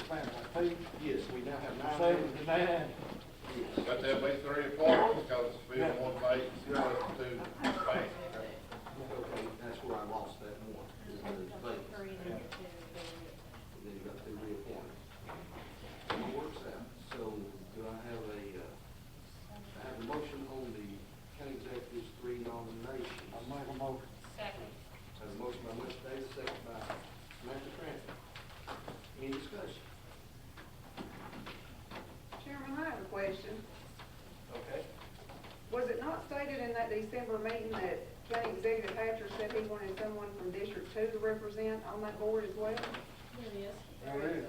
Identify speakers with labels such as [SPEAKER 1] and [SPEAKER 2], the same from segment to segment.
[SPEAKER 1] two,
[SPEAKER 2] Yes, we now have nine.
[SPEAKER 1] seven to nine.
[SPEAKER 2] Yes.
[SPEAKER 3] Got to have at least three or four, because it's been one page, zero to two page.
[SPEAKER 2] Okay, that's where I lost that one. is those vacancies. And then you got to reappoint. And it works out. So do I have a, uh, I have a motion on the county executive's three nominations.
[SPEAKER 1] I make a motion.
[SPEAKER 4] Second.
[SPEAKER 2] Have a motion by Mr. Davis, second by Samantha Cranford. Any discussion?
[SPEAKER 5] Chairman, I have a question.
[SPEAKER 2] Okay.
[SPEAKER 5] Was it not stated in that December meeting that County Executive Hatcher said he wanted someone from District Two to represent on that board as well?
[SPEAKER 4] There it is.
[SPEAKER 1] There it is.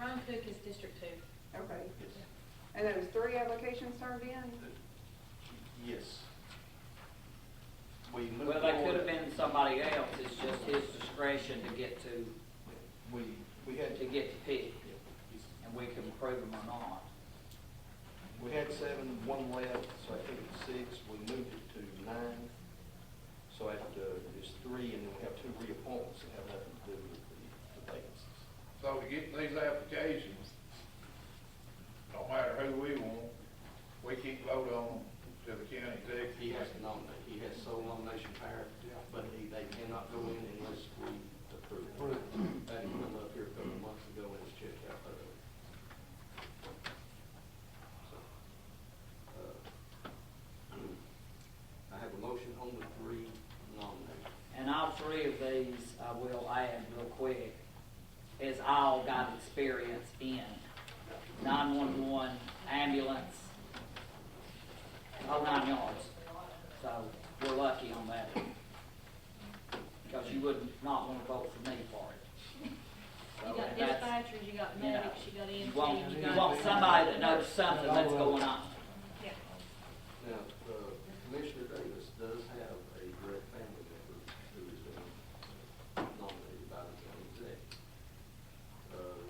[SPEAKER 4] Ron Cook is District Two.
[SPEAKER 5] Okay,
[SPEAKER 2] Yes.
[SPEAKER 5] and there was three applications turned in?
[SPEAKER 2] Yes. We moved
[SPEAKER 6] Well, they could
[SPEAKER 2] forward.
[SPEAKER 6] have been somebody else, it's just his discretion to get to,
[SPEAKER 2] We, we had to,
[SPEAKER 6] to get to pick, and we can approve them or not.
[SPEAKER 2] we had seven, one left, so I think it's six, we moved it to nine. So at, uh, there's three, and then we have two reappointments that have nothing to do with the- the vacancies.
[SPEAKER 3] So to get these applications, no matter who we want, we can't vote on them to the county executive.
[SPEAKER 2] He has to nominate, he has sole nomination power, but he, they cannot go in unless we approve. it. That had come up here a couple of months ago and was checked out thoroughly. So, uh, I have a motion on the three nominations.
[SPEAKER 6] And all three of these, I will add real quick, is all got experience in nine-one-one ambulance, all nine yards. So we're lucky on that, because you would not want to vote for me for it.
[SPEAKER 4] You
[SPEAKER 6] So,
[SPEAKER 4] got
[SPEAKER 6] and that's-
[SPEAKER 4] dispatchers, you got
[SPEAKER 6] you know,
[SPEAKER 4] medics, you got
[SPEAKER 6] You
[SPEAKER 4] EMT,
[SPEAKER 6] want,
[SPEAKER 4] you
[SPEAKER 6] you
[SPEAKER 4] got.
[SPEAKER 6] want somebody that knows something that's going on.
[SPEAKER 4] Yeah.
[SPEAKER 2] Now, uh, Commissioner Davis does have a direct family member who has been nominated by the county exec. Um,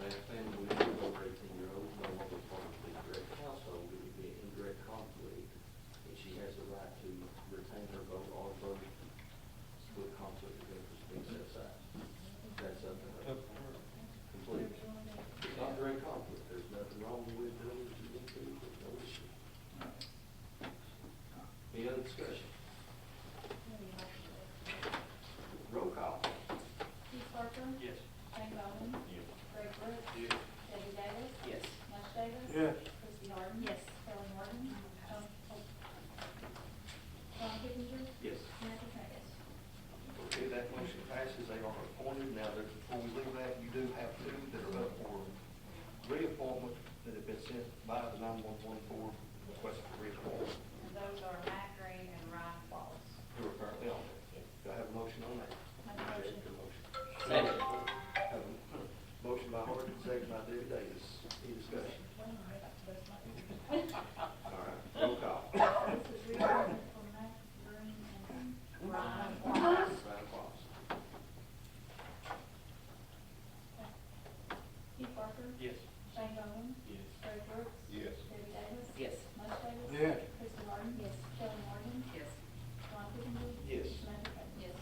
[SPEAKER 2] That family member over eighteen year old, no longer part of the direct household, it would be an indirect conflict, and she has the right to retain her vote or vote with conflict of interest being set aside. That's up to her completely. It's not direct conflict, there's nothing wrong with doing what you need to, there's no issue. Any other discussion? Roll call.
[SPEAKER 7] Keith Parker.
[SPEAKER 2] Yes.
[SPEAKER 7] Shane Bowman. Greg Brooks. Debbie Davis.
[SPEAKER 6] Yes.
[SPEAKER 7] mush Davis.
[SPEAKER 1] Yes.
[SPEAKER 7] Christie Harden.
[SPEAKER 4] Yes.
[SPEAKER 7] Helen Morton. John, oh. John Kipinger.
[SPEAKER 2] Yes.
[SPEAKER 7] Samantha Trent.
[SPEAKER 2] Okay, that motion passes, they are appointed. Now, there- before we leave that, you do have two that are up for reappointment that have been sent by the nine-one-one board requesting for reappointment,
[SPEAKER 7] Those are Matt Green and Ryan Wallace.
[SPEAKER 2] who are currently on there. Do I have a motion on that?
[SPEAKER 7] Make a motion.
[SPEAKER 2] Good motion.
[SPEAKER 6] Second.
[SPEAKER 2] Have a Motion by Harden, second by Debbie Davis. Any discussion? All right, roll call.
[SPEAKER 7] This is reappointment for Matt Green and Ryan Wallace.
[SPEAKER 2] Ryan Fox.
[SPEAKER 7] Keith Parker.
[SPEAKER 2] Yes.
[SPEAKER 7] Shane Bowman. Greg Brooks.
[SPEAKER 3] Yes.
[SPEAKER 7] Debbie Davis.
[SPEAKER 6] Yes.
[SPEAKER 7] mush Davis.
[SPEAKER 1] Yes.
[SPEAKER 7] Christie Harden. Yes. Helen Morton.
[SPEAKER 4] Yes.
[SPEAKER 7] John Kipinger.
[SPEAKER 2] Yes.
[SPEAKER 7] Samantha Trent.
[SPEAKER 4] Yes.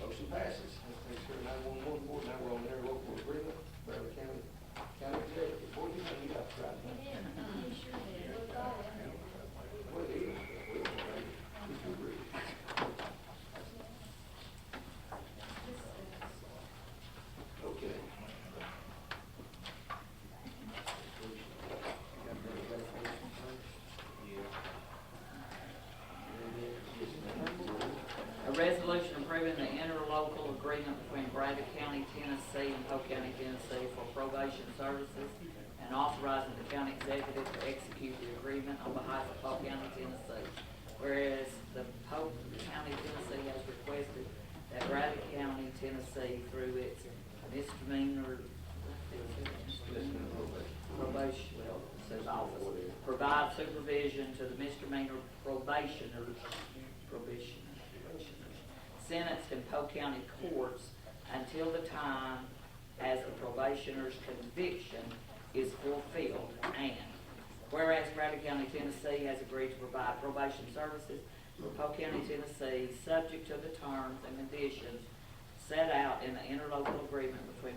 [SPEAKER 2] Motion passes. That takes care of nine-one-one board, now we're on interlocal agreement, Brevard County, County Executive Board, you know, you got to try
[SPEAKER 7] We
[SPEAKER 2] to-
[SPEAKER 7] did, we sure did, we got it.
[SPEAKER 2] What it is, but we don't know. We can agree. Okay.
[SPEAKER 6] A resolution approving the interlocal agreement between Brazos County, Tennessee and Polk County, Tennessee for probation services and authorizing the county executive to execute the agreement on behalf of Polk County, Tennessee. Whereas the Polk County, Tennessee has requested that Brazos County, Tennessee through its misdemeanor probation, well, it says office, provide supervision to the misdemeanor probationers, probationers, probationers, sentenced in Polk County courts until the time as the probationer's conviction is fulfilled, and whereas Bradley County, Tennessee has agreed to provide probation services for Polk County, Tennessee, subject to the terms and conditions set out in the interlocal agreement between